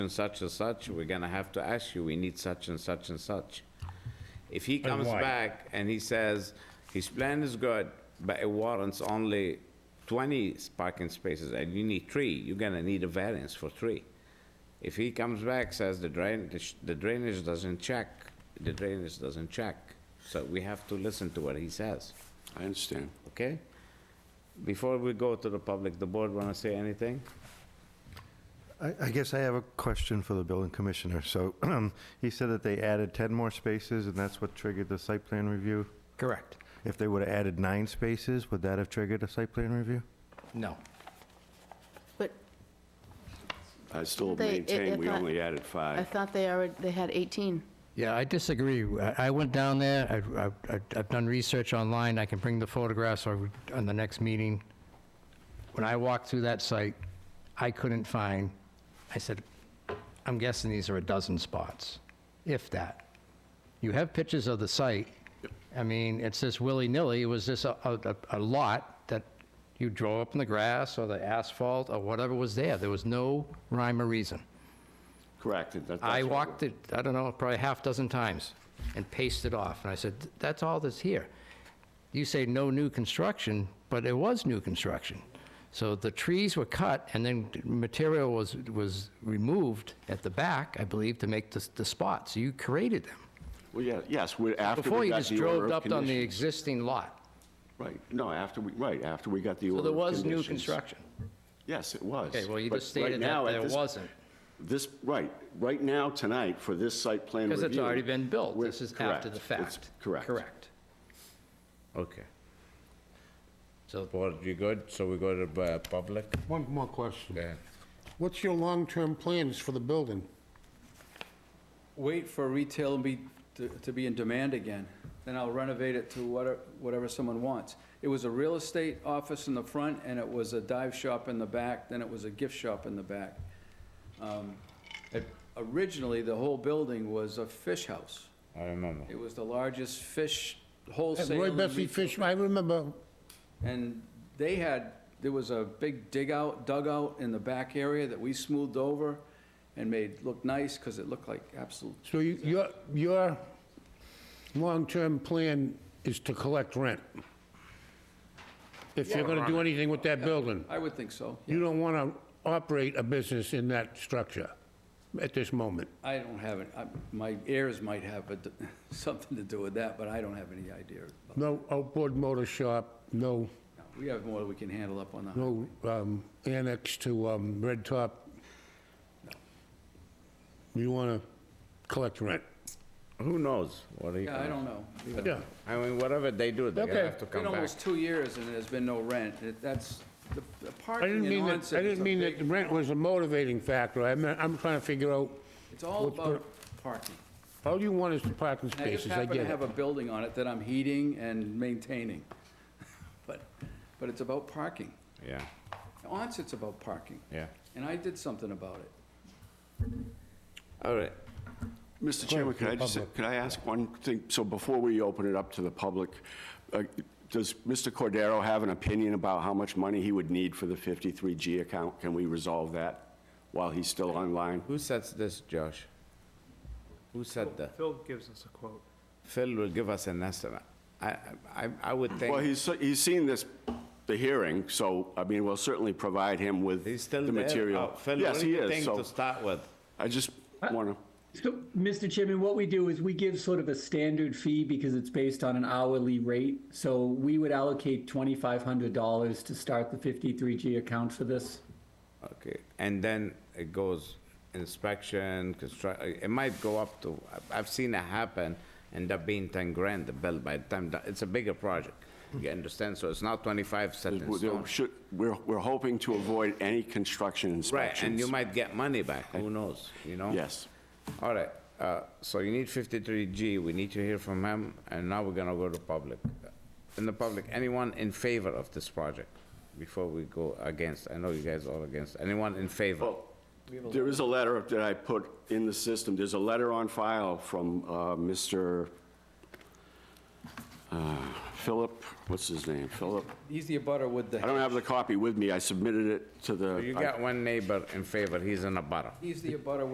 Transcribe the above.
and such and such, we're gonna have to ask you, we need such and such and such. If he comes why? back and he says, his plan is good, but it warrants only 20 parking spaces, and you need three, you're gonna need a variance for three. If he comes back, says the drainage, the drainage doesn't check, the drainage doesn't check, so we have to listen to what he says, I understand. okay? Before we go to the public, the board wanna say anything? I I guess I have a question for the building commissioner. So he said that they added 10 more spaces, and that's what triggered the site plan review? Correct. If they would have added nine spaces, would that have triggered a site plan review? No. But I still They- i- maintain if we I- only added I five. thought they already, they had 18. Yeah, I disagree. I I went down there, I- I- I- I've done research online, I can bring the photographs or we- on the next meeting. When I walked through that site, I couldn't find, I said, I'm guessing these are a dozen spots, if that. You have pictures of the site. I mean, it's just willy-nilly, it was just a- a a lot that you drove up in the grass or the asphalt or whatever was there. There was no rhyme or reason. Correct. and that- that's I what walked it, I don't know, probably half dozen times and paced it off. And I said, that's all that's here. You say no new construction, but it was new construction. So the trees were cut and then material was, was removed at the back, I believe, to make the, the spots. You created them. Well, yeah, yes, we- after Before we you got just the order drove of up on the conditions. existing lot. Right, no, after we, right, after we got the So order there of was new conditions. construction. Yes, it was. Okay, well, you But just right stated now, that at there this- wasn't. This, right, right now, tonight, for this site plan review. Because it's already been built. we're- This is after the correct, it's fact. Correct. Correct. Okay. So Board, you good? So we go to the public? One more question. Yeah. What's your long-term plans for the building? wait for retail be, to- to be in demand again, then I'll renovate it to whatever, whatever someone wants. It was a real estate office in the front, and it was a dive shop in the back, then it was a gift shop in the back. Um, it- Originally, the whole building was a fish house. I remember. It was the largest fish At wholesale. Roy and Bessie retail- Fish, I remember, and they had, there was a big dig out, dugout in the back area that we smoothed over and made look nice, because it looked like absolute so you- your, your long-term plan is to collect rent? If you're gonna do anything with that building? I would think so. You don't wanna operate a business in that structure at this moment? I don't have it, I- my heirs might have a- something to do with that, but I don't have any idea. about- No outboard motor shop, no, We have more we can handle up on the, no um, annex to um, Red Top? You wanna collect rent? Who knows? What are you? yeah, I don't know. But Yeah. I mean, whatever they do, they're gonna Okay. have to It's been come back. almost two years and there's been no rent, It- that's, the- the I didn't parking in mean that, Onset I is a didn't mean big- that the rent was a motivating factor. I meant, I'm trying to figure out, It's all What's gonna- about parking. all you want is the parking And I just spaces, I happen to get it. have a building on it that I'm heating and maintaining, but, but it's about parking. Yeah, Onset's about parking, yeah. and I did something about it. All right. Mr. Chairman, could I just, could I ask one thing? So before we open it up to the public, uh, does Mr. Cordero have an opinion about how much money he would need for the 53G account? Can we resolve that while he's still online? Who sets this, Josh? Who said that? Phil gives us a quote. Phil will give us an estimate. I, I, I would Well, think, he's, he's seen this, the hearing, so, I mean, we'll certainly provide him with he's still the there. material. Oh, Phil, what Yes, do he you is, think to so start with? I just want to, So, Mr. Chairman, what we do is we give sort of a standard fee because it's based on an hourly rate. So we would allocate twenty-five hundred dollars to start the fifty-three G account for this. Okay, and then it goes inspection, construct, it might go up to, I've- I've seen it happen, end up being 10 grand the bill by the time, that- it's a bigger project. You understand? So it's not 25 set in there stone. should, we're, we're hoping to avoid any construction Right, inspections. and you might get money back, who knows, you know? Yes. All right, uh, so you need 53G, we need to hear from him, and now we're gonna go to public. In the public, anyone in favor of this project? Before we go against, I know you guys are against, anyone in favor? Well, There is a letter that I put in the system, there's a letter on file from uh, Mr. uh, Philip, what's his name, Philip? He's the abutter with I the, don't have the copy with me, I submitted it to the. You I- got one neighbor in favor, he's in a butter. he's the abutter with